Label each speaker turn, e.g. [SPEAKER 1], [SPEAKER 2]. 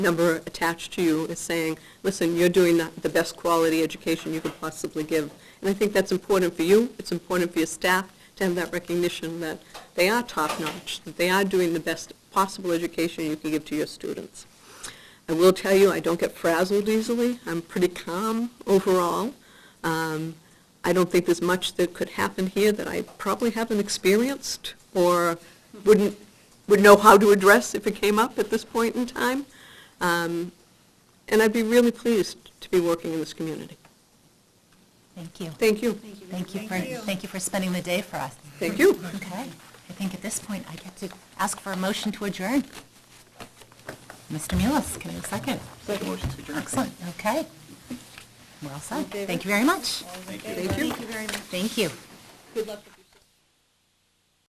[SPEAKER 1] number attached to you is saying, listen, you're doing the- the best quality education you could possibly give. And I think that's important for you, it's important for your staff to have that recognition that they are top-notch, that they are doing the best possible education you can give to your students. I will tell you, I don't get frazzled easily, I'm pretty calm overall. Um, I don't think there's much that could happen here that I probably haven't experienced or wouldn't, would know how to address if it came up at this point in time. Um, And I'd be really pleased to be working in this community.
[SPEAKER 2] Thank you.
[SPEAKER 1] Thank you.
[SPEAKER 2] Thank you for, thank you for spending the day for us.
[SPEAKER 1] Thank you.
[SPEAKER 2] Okay. I think at this point, I get to ask for a motion to adjourn. Mr. Mullis, can I have a second?
[SPEAKER 3] Motion to adjourn.
[SPEAKER 2] Excellent, okay. We're all set. Thank you very much.
[SPEAKER 1] Thank you.
[SPEAKER 2] Thank you.
[SPEAKER 1] Good luck.